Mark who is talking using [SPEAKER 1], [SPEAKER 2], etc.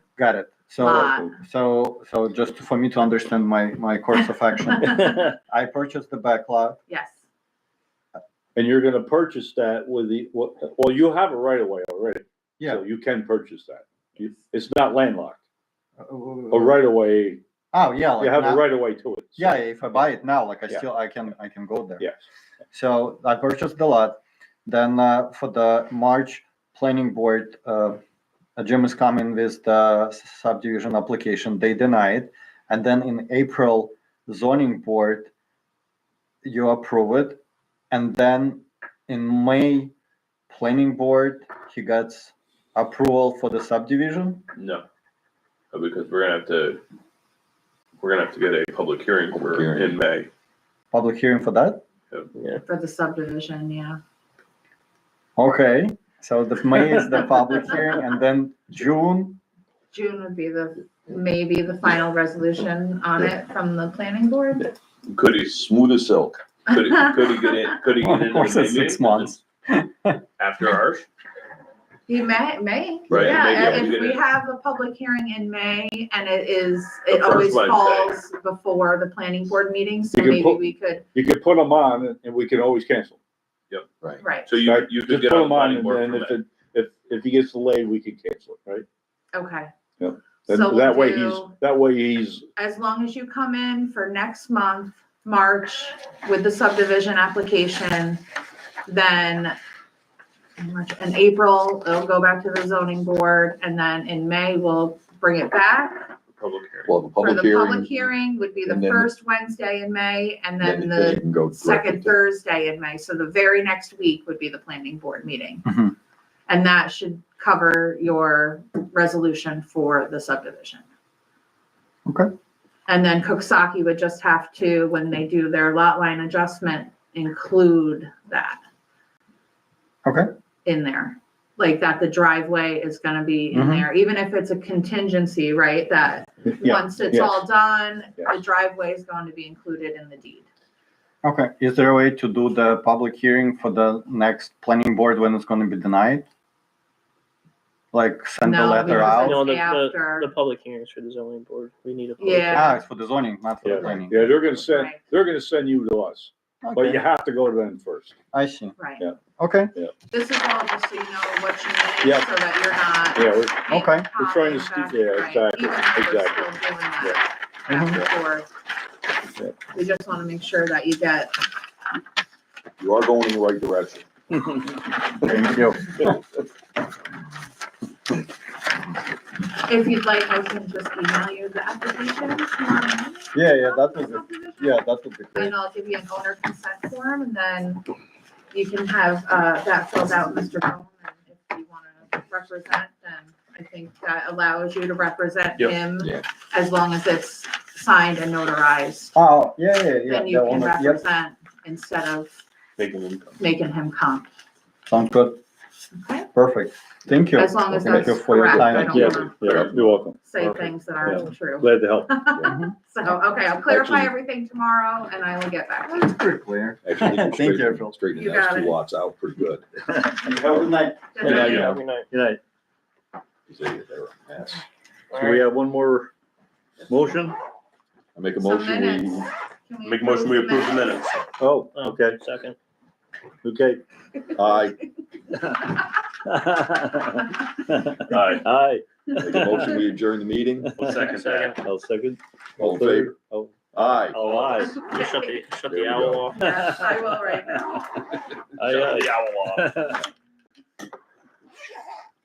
[SPEAKER 1] Got it.
[SPEAKER 2] Ah.
[SPEAKER 1] So, so, so just for me to understand my, my course of action, I purchased the back lot.
[SPEAKER 2] Yes,
[SPEAKER 3] And you're gonna purchase that with the, what- well, you have a right of way already.
[SPEAKER 1] Yeah.
[SPEAKER 3] So you can purchase that. You- It's not landlocked. A
[SPEAKER 1] Oh,
[SPEAKER 3] right of way,
[SPEAKER 1] yeah. like
[SPEAKER 3] you have a
[SPEAKER 1] now-
[SPEAKER 3] right of way to it. so-
[SPEAKER 1] Yeah, if I buy it now, like I
[SPEAKER 3] Yeah.
[SPEAKER 1] still, I can, I can go there.
[SPEAKER 3] Yes.
[SPEAKER 1] So I purchased the lot. Then uh, for the March planning board, uh, uh, Jim is coming with the subdivision application. They denied. And then in April, zoning board, you approve it. And then in May, planning board, he gets approval for the subdivision.
[SPEAKER 4] No, Uh, because we're gonna have to, we're gonna have to get a public hearing
[SPEAKER 5] Public
[SPEAKER 4] for
[SPEAKER 5] hearing.
[SPEAKER 4] in May.
[SPEAKER 1] Public hearing for that.
[SPEAKER 2] for the subdivision, yeah.
[SPEAKER 1] Okay. So the May is the public hearing, and then June.
[SPEAKER 2] June would be the, maybe the final resolution on it from the planning board.
[SPEAKER 4] Could he,
[SPEAKER 5] Smooth as silk.
[SPEAKER 4] could he, could he get in, could he get in?
[SPEAKER 1] Of course, it's
[SPEAKER 4] maybe
[SPEAKER 1] six months.
[SPEAKER 4] After ours?
[SPEAKER 2] He may, may,
[SPEAKER 4] Right,
[SPEAKER 2] yeah,
[SPEAKER 4] maybe
[SPEAKER 2] if
[SPEAKER 4] we
[SPEAKER 2] we
[SPEAKER 4] didn't-
[SPEAKER 2] have a public hearing in May and it is,
[SPEAKER 4] The
[SPEAKER 2] it
[SPEAKER 4] first
[SPEAKER 2] always
[SPEAKER 4] Wednesday.
[SPEAKER 2] falls before the planning board meeting, so
[SPEAKER 3] You can
[SPEAKER 2] maybe
[SPEAKER 3] put-
[SPEAKER 2] we could,
[SPEAKER 3] You can put them on and- and we can always cancel.
[SPEAKER 5] Right.
[SPEAKER 2] right,
[SPEAKER 4] So you,
[SPEAKER 3] right?
[SPEAKER 4] you could
[SPEAKER 3] Just
[SPEAKER 4] get
[SPEAKER 3] put
[SPEAKER 4] on the
[SPEAKER 3] 'em on
[SPEAKER 4] planning
[SPEAKER 3] and
[SPEAKER 4] board
[SPEAKER 3] then
[SPEAKER 4] for
[SPEAKER 3] if
[SPEAKER 4] May.
[SPEAKER 3] it, if, if he gets delayed, we can cancel it, right?
[SPEAKER 2] okay.
[SPEAKER 3] Yeah.
[SPEAKER 2] So
[SPEAKER 3] Then
[SPEAKER 2] we'll
[SPEAKER 3] that way he's,
[SPEAKER 2] do-
[SPEAKER 3] that way he's,
[SPEAKER 2] as long as you come in for next month, March, with the subdivision application, then March and April, it'll go back to the zoning board, and then in May, we'll bring it back.
[SPEAKER 4] Public hearing.
[SPEAKER 5] Well, the
[SPEAKER 2] For
[SPEAKER 5] public
[SPEAKER 2] the
[SPEAKER 5] hearing.
[SPEAKER 2] public hearing would be the
[SPEAKER 5] and then-
[SPEAKER 2] first Wednesday in May, and then
[SPEAKER 5] they
[SPEAKER 2] the
[SPEAKER 5] can go directly
[SPEAKER 2] second
[SPEAKER 5] to-
[SPEAKER 2] Thursday in May, so the very next week would be the planning board meeting.
[SPEAKER 1] Mhm.
[SPEAKER 2] And that should cover your resolution for the subdivision.
[SPEAKER 1] Okay.
[SPEAKER 2] And then Koksaki would just have to, when they do their lot line adjustment, include that.
[SPEAKER 1] Okay.
[SPEAKER 2] In there, like that the driveway is gonna be in
[SPEAKER 1] Mhm.
[SPEAKER 2] there, even if it's a contingency, right, that
[SPEAKER 3] yeah,
[SPEAKER 2] once it's
[SPEAKER 3] yes.
[SPEAKER 2] all done, the
[SPEAKER 3] Yes.
[SPEAKER 2] driveway is going to be included in the deed.
[SPEAKER 1] Okay, is there a way to do the public hearing for the next planning board when it's gonna be denied? Like send a
[SPEAKER 2] No,
[SPEAKER 1] letter
[SPEAKER 2] because
[SPEAKER 1] out?
[SPEAKER 6] No, the,
[SPEAKER 2] after.
[SPEAKER 6] the, the public hearings for the zoning board, we need a. public
[SPEAKER 2] Yeah.
[SPEAKER 1] Ah, it's for the zoning, not for the
[SPEAKER 3] yeah,
[SPEAKER 1] planning.
[SPEAKER 3] yeah, they're gonna send,
[SPEAKER 2] Right.
[SPEAKER 3] they're gonna send you to us, but you
[SPEAKER 1] Okay,
[SPEAKER 3] have to go to them first.
[SPEAKER 1] I see.
[SPEAKER 2] Right.
[SPEAKER 3] Yeah.
[SPEAKER 1] Okay,
[SPEAKER 2] This is all just so you know what you need,
[SPEAKER 3] Yeah.
[SPEAKER 2] so that you're
[SPEAKER 3] Yeah,
[SPEAKER 2] not.
[SPEAKER 3] we're-
[SPEAKER 2] making
[SPEAKER 1] Okay.
[SPEAKER 3] We're trying to
[SPEAKER 2] copies
[SPEAKER 3] see-
[SPEAKER 2] back,
[SPEAKER 3] yeah,
[SPEAKER 2] right,
[SPEAKER 3] exactly,
[SPEAKER 2] even if we're
[SPEAKER 3] exactly.
[SPEAKER 2] still doing that back and
[SPEAKER 1] Uh-huh.
[SPEAKER 2] forth.
[SPEAKER 3] Yeah.
[SPEAKER 2] We just want to make sure that you get,
[SPEAKER 5] You are going in the right direction.
[SPEAKER 1] thank you.
[SPEAKER 2] if you'd like, I can just email you the application. tomorrow.
[SPEAKER 1] Yeah, yeah, that would be, yeah, that would be great.
[SPEAKER 2] And I'll give you an owner consent form and then you can have, uh, that filled out, Mr. Bowman. And if you want to represent, then I think that allows you to represent
[SPEAKER 4] Yep.
[SPEAKER 2] him
[SPEAKER 5] Yeah.
[SPEAKER 2] as long as it's signed and notarized.
[SPEAKER 1] Oh, yeah, yeah, yeah.
[SPEAKER 2] then you
[SPEAKER 1] the
[SPEAKER 2] can
[SPEAKER 1] owner- Yep,
[SPEAKER 2] represent instead of
[SPEAKER 4] Making them come.
[SPEAKER 2] making him come.
[SPEAKER 1] sounds good,
[SPEAKER 2] Okay?
[SPEAKER 1] perfect, thank you.
[SPEAKER 2] As long as
[SPEAKER 1] Thank you
[SPEAKER 2] that's
[SPEAKER 1] for your
[SPEAKER 2] correct,
[SPEAKER 1] time.
[SPEAKER 2] I don't
[SPEAKER 3] Yeah,
[SPEAKER 2] wanna
[SPEAKER 3] yeah, you're welcome.
[SPEAKER 2] say
[SPEAKER 3] Perfect.
[SPEAKER 2] things that aren't true.
[SPEAKER 3] Glad to help.
[SPEAKER 2] So, okay, I'll clarify
[SPEAKER 5] Actually-
[SPEAKER 2] everything tomorrow and I will get back to
[SPEAKER 1] It's pretty clear.
[SPEAKER 5] Actually,
[SPEAKER 1] Thank you, Phil.
[SPEAKER 5] straightening, straightening
[SPEAKER 2] You got
[SPEAKER 5] those
[SPEAKER 2] it.
[SPEAKER 5] two lots out pretty good.
[SPEAKER 1] Have a good night.
[SPEAKER 2] you.
[SPEAKER 4] Yeah,
[SPEAKER 6] hearing.
[SPEAKER 4] yeah.
[SPEAKER 6] Every night.
[SPEAKER 3] Good night.
[SPEAKER 5] They were a mess.
[SPEAKER 3] Do we have one more motion?
[SPEAKER 5] I make a
[SPEAKER 2] Some
[SPEAKER 5] motion,
[SPEAKER 2] minutes.
[SPEAKER 5] we,
[SPEAKER 2] Can we
[SPEAKER 4] Make a motion, we approve the minutes.
[SPEAKER 3] Oh,
[SPEAKER 6] Oh,
[SPEAKER 3] okay,
[SPEAKER 6] Second.
[SPEAKER 3] okay.
[SPEAKER 5] I
[SPEAKER 4] Aye.
[SPEAKER 3] Aye.
[SPEAKER 5] make a motion, we adjourn the meeting.
[SPEAKER 4] I'll second that.
[SPEAKER 3] I'll second.
[SPEAKER 5] All in favor?
[SPEAKER 3] Oh,
[SPEAKER 5] Aye.
[SPEAKER 3] oh, aye.
[SPEAKER 6] Just shut the,
[SPEAKER 5] There
[SPEAKER 6] shut
[SPEAKER 5] we
[SPEAKER 6] the owl off.
[SPEAKER 2] Yes, I will right now.
[SPEAKER 3] Aye,
[SPEAKER 4] Shut the owl off.
[SPEAKER 3] aye.